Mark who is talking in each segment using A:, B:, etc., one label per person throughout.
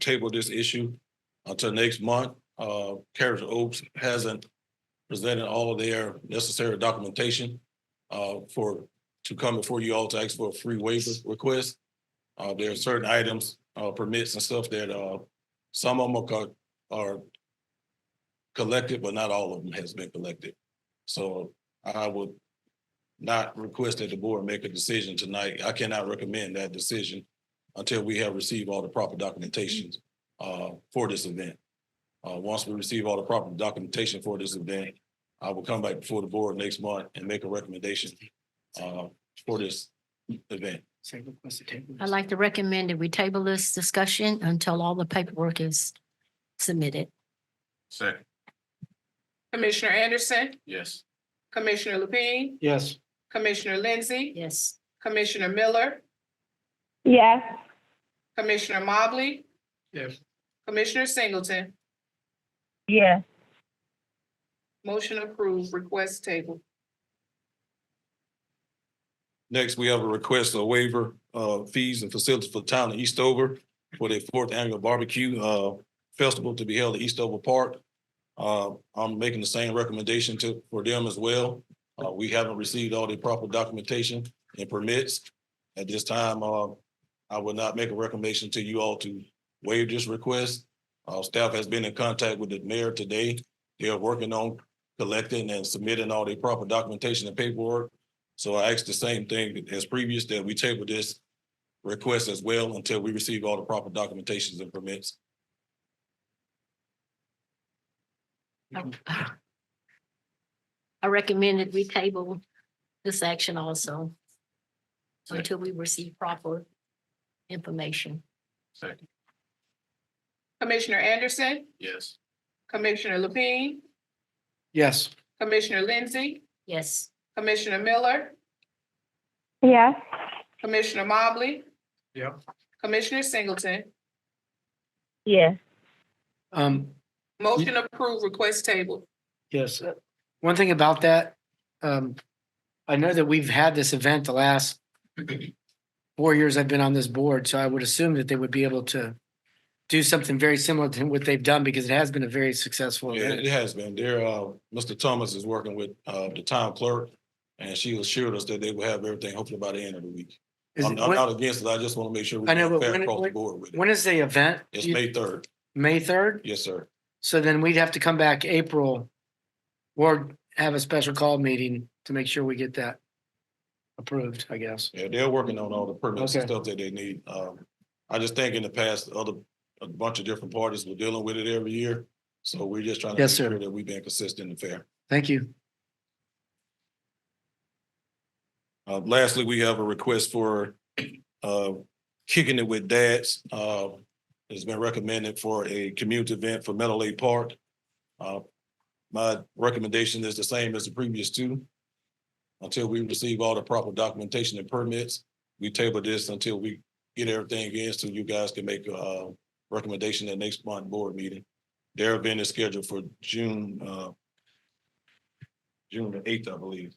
A: table this issue until next month. Uh, Carriage Oaks hasn't presented all of their necessary documentation uh, for, to come before you all to ask for a free waiver request. Uh, there are certain items, uh, permits and stuff that, uh, some of them are, co- are collected, but not all of them has been collected. So I would not request that the board make a decision tonight. I cannot recommend that decision until we have received all the proper documentation uh, for this event. Uh, Once we receive all the proper documentation for this event, I will come back before the board next month and make a recommendation uh, for this event.
B: I'd like to recommend that we table this discussion until all the paperwork is submitted.
C: Second,
D: Commissioner Anderson,
C: yes.
D: Commissioner Lapine,
E: Yes.
D: Commissioner Lindsey,
B: Yes.
D: Commissioner Miller,
F: Yes,
D: Commissioner Mobley,
E: Yes.
D: Commissioner Singleton.
F: Yes.
D: Motion approved, request table.
A: Next, we have a request of waiver of fees and facilities for the town of Eastover for their fourth annual barbecue uh, festival to be held at Eastover Park. Uh, I'm making the same recommendation to, for them as well. Uh, We haven't received all the proper documentation and permits. At this time, uh, I would not make a recommendation to you all to waive this request. Uh, Staff has been in contact with the mayor today. They are working on collecting and submitting all the proper documentation and paperwork. So I asked the same thing as previous, that we table this request as well until we receive all the proper documentations and permits.
B: I recommend that we table this action also until we receive proper information.
C: Second,
D: Commissioner Anderson,
C: yes.
D: Commissioner Lapine,
E: Yes.
D: Commissioner Lindsey,
B: Yes.
D: Commissioner Miller,
F: yes,
D: Commissioner Mobley.
E: Yep.
D: Commissioner Singleton,
F: yes,
E: Um,
D: motion approved, request table.
E: yes, uh, one thing about that, um, I know that we've had this event the last four years I've been on this board, so I would assume that they would be able to do something very similar to what they've done because it has been a very successful
A: Yeah,
E: event.
A: It has been there. Uh, Mr. Thomas is working with, uh, the town clerk and she assured us that they will have everything hopefully by the end of the week.
E: Is
A: I'm
E: it-
A: I'm
E: When
A: not against it. I just want to make sure. we
E: I know, but
A: fair
E: when-
A: Across the
E: when-
A: board with it.
E: when is the event?
A: It's
E: You-
A: May third.
E: May third?
A: Yes, sir.
E: So then we'd have to come back April or have a special call meeting to make sure we get that approved, I guess.
A: Yeah, they're working on all the permits and
E: Okay.
A: stuff that they need. Um, I just think in the past, other, a bunch of different parties were dealing with it every year. So we're just trying to make
E: Yes, sir.
A: sure that we've been consistent and fair.
E: Thank you.
A: Uh, lastly, we have a request for, uh, kicking it with dads. Uh, it's been recommended for a community event for Meadow Lake Park. Uh, my recommendation is the same as the previous two. Until we receive all the proper documentation and permits, we table this until we get everything in so you guys can make a recommendation at next month board meeting. Their event is scheduled for June, uh, June the eighth, I believe.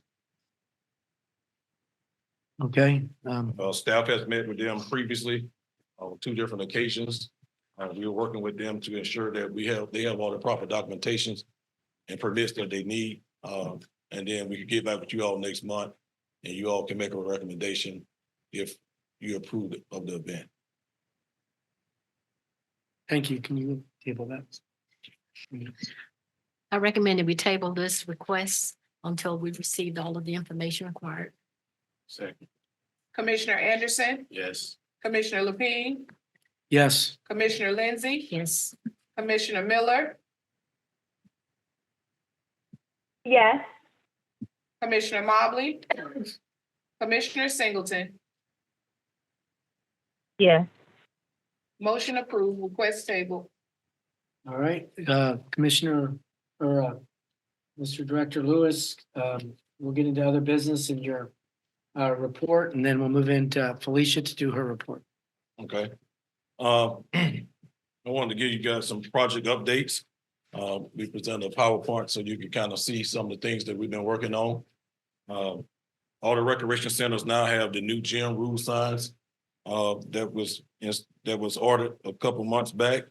E: Okay, um,
A: Uh, staff has met with them previously uh, on two different occasions. Uh, we are working with them to ensure that we have, they have all the proper documentations and permits that they need. Uh, and then we can get back with you all next month and you all can make a recommendation if you approve of the event.
E: thank you. Can you table that?
B: I recommend that we table this request until we've received all of the information required.
C: Second,
D: Commissioner Anderson,
C: yes.
D: Commissioner Lapine,
E: Yes,
D: Commissioner Lindsey,
B: Yes.
D: Commissioner Miller,
F: yes,
D: Commissioner Mobley, Commissioner Singleton,
F: yes,
D: motion approved, request table.
E: all right, uh, Commissioner or uh, Mr. Director Lewis, um, we'll get into other business in your uh, report and then we'll move into Felicia to do her report.
A: Okay. Uh, I wanted to give you guys some project updates. Uh, we presented a PowerPoint so you can kind of see some of the things that we've been working Um, on. Uh, all the recreation centers now have the new gym rule signs. Uh, uh, that was, that was ordered a couple months back.